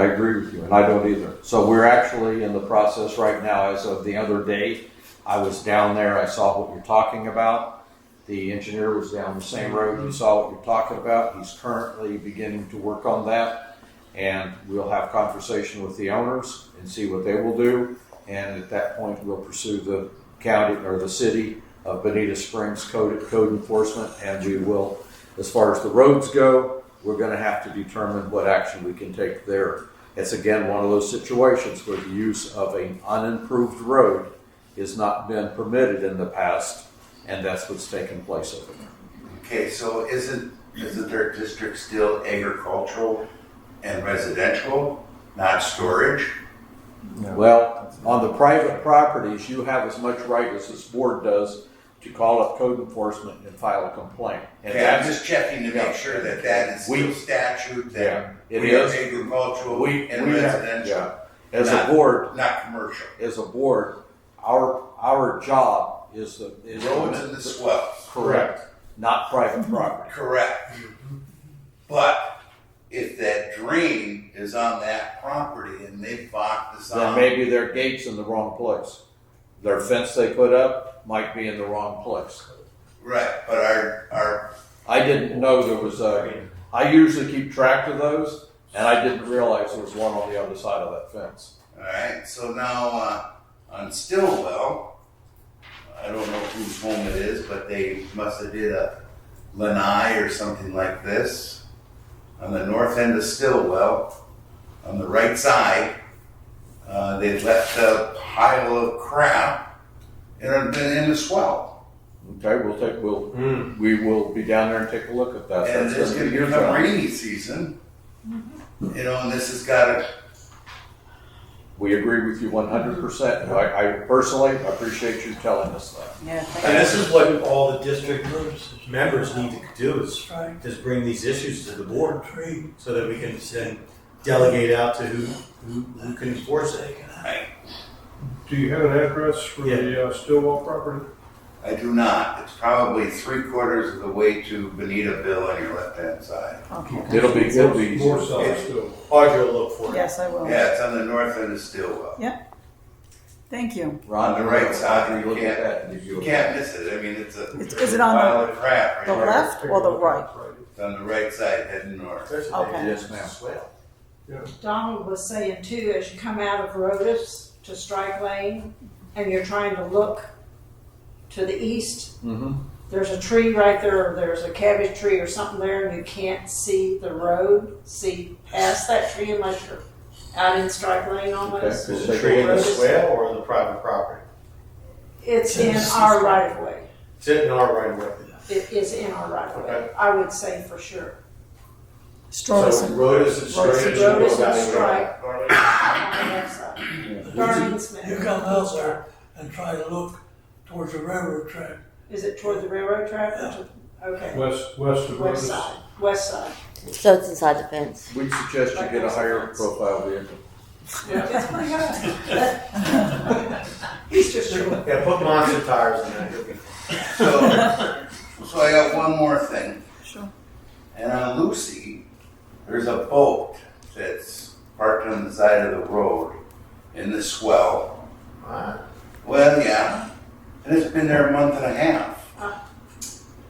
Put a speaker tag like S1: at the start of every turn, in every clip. S1: I agree with you, and I don't either. So we're actually in the process right now, as of the other day, I was down there, I saw what you're talking about. The engineer was down the same road, he saw what you're talking about, he's currently beginning to work on that. And we'll have conversation with the owners and see what they will do. And at that point, we'll pursue the county or the city of Bonita Springs code, code enforcement. And we will, as far as the roads go, we're gonna have to determine what action we can take there. It's again, one of those situations where the use of an unimproved road has not been permitted in the past, and that's what's taken place over there.
S2: Okay, so isn't, isn't their district still agricultural and residential, not storage?
S1: Well, on the private properties, you have as much right as this board does to call up code enforcement and file a complaint. And
S2: Okay, I'm
S1: that's-
S2: just checking to
S1: Yeah.
S2: make sure that that is
S1: We-
S2: still statute
S1: Yeah,
S2: that
S1: it
S2: we are
S1: is.
S2: agricultural
S1: We, we
S2: and
S1: have,
S2: residential,
S1: yeah. As a
S2: Not-
S1: board,
S2: not commercial.
S1: as a board, our, our job is the. is the-
S2: Roads and the swells,
S1: Correct, not private property.
S2: correct. But if that drain is on that property and they blocked this
S1: Then
S2: on,
S1: maybe their gate's in the wrong place. Their fence they put up might be in the wrong place.
S2: right, but our, our,
S1: I didn't know there was a, I usually keep track of those, and I didn't realize there was one on the other side of that fence.
S2: alright, so now, uh, on Stillwell, I don't know whose home it is, but they must have did a lanai or something like this. On the north end of Stillwell, on the right side, uh, they left a pile of crap in, in the swell.
S1: Okay, we'll take, we'll, we will be down there and take a look at that.
S2: And
S1: That's
S2: there's
S1: gonna be
S2: gonna be
S1: your
S2: a
S1: job.
S2: rainy season. You know, and this has gotta,
S1: We agree with you one hundred percent. I, I personally appreciate you telling us that.
S3: Yeah,
S4: And
S3: thank
S4: this is what all the district members need to do is just bring these issues to the board so that we can then delegate out to who, who, who can enforce it.
S5: Do you have an address for the uh, Stillwell property?
S2: I do not, it's probably three quarters of the way to Benitaville on your left-hand side.
S3: you. Okay.
S1: It'll be, it'll be easier.
S5: North side Stillwell.
S4: Audrey will look for it.
S3: Yes, I will.
S2: Yeah, it's on the north end of Stillwell.
S3: Thank you.
S1: Ron,
S2: On the right side,
S1: you
S2: you
S1: look at
S2: can't-
S1: that and give you
S2: You
S1: a-
S2: can't miss it, I mean, it's a
S3: It's- Is it on
S2: pile of crap right
S3: the
S2: there.
S3: left or the right?
S2: It's on the right side heading north.
S4: There's a
S3: Okay.
S4: name.
S1: Yes, ma'am.
S4: Swell.
S6: Donald was saying too, as you come out of Rodas to Strike Lane and you're trying to look to the east,
S1: Mhm.
S6: there's a tree right there, or there's a cabbage tree or something there, and you can't see the road, see past that tree unless you're out in Strike Lane almost.
S1: Okay.
S4: There's a tree in the
S6: Rodas.
S4: swale or in the private property?
S6: It's in our right of way.
S4: It's in our right of way.
S6: It is in our right of way,
S4: Okay.
S6: I would say for sure.
S4: So
S3: Strorson.
S4: road is obstructed.
S6: Road is
S4: we'll
S6: obstructed.
S4: evaluate it.
S6: On the left side. Darlene Smith.
S7: You come out there and try to look towards the railroad track.
S6: Is it toward the railroad track or to, okay,
S5: West, west of
S6: west
S5: Rodas.
S6: side, west side.
S8: So it's inside the fence.
S1: We suggest you get a higher profile vehicle.
S6: That's pretty good. He's just true.
S4: Yeah, put monster tires in that.
S2: So, so I got one more thing.
S3: Sure.
S2: And on Lucy, there's a boat that's parked on the side of the road in the swell.
S4: Alright.
S2: Well, yeah, and it's been there a month and a half.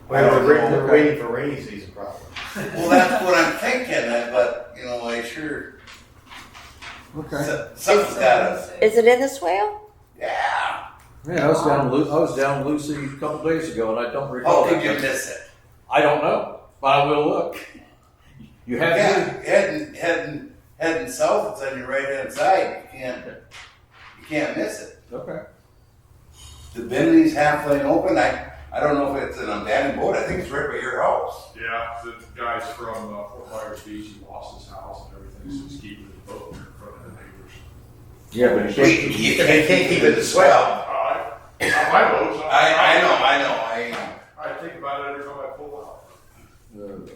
S4: Well, we're we're waiting for rainy season probably.
S2: Well, that's what I'm thinking, but, you know, I sure, so- something's gotta,
S6: uh,
S8: Is it in the swale?
S2: yeah.
S1: Yeah, I was down, Lu- I was down Lucy a couple days ago, and I don't recall.
S2: Oh, did you
S1: that.
S2: miss it?
S1: I don't know, but I will look. You have to.
S2: Yeah, heading, heading, heading south, it's on your right hand side, you can't, you can't miss it.
S1: Okay.
S2: The Bentley's half lane open, I, I don't know if it's an abandoned boat, I think it's right by your house.
S9: Yeah, the guys from uh, Fort Myers Beach, he lost his house and everything, so he's keeping his boat in front of the neighbors.
S1: Yeah, but
S2: You can't keep it as well.
S9: Uh, not my boat. so
S2: I, I know, I know, I,
S9: I think about it every time I pull out.
S1: Uh,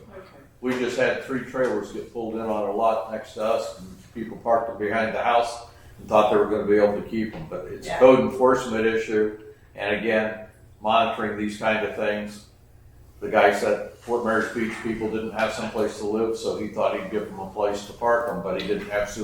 S1: We just had three trailers get pulled in on a lot next to us, and people parked them behind the house and thought they were gonna be able to keep them, but it's a
S6: Yeah.
S1: code enforcement issue, and again, monitoring these kind of things. The guy said Fort Myers Beach people didn't have someplace to live, so he thought he'd give them a place to park them, but he didn't have sewer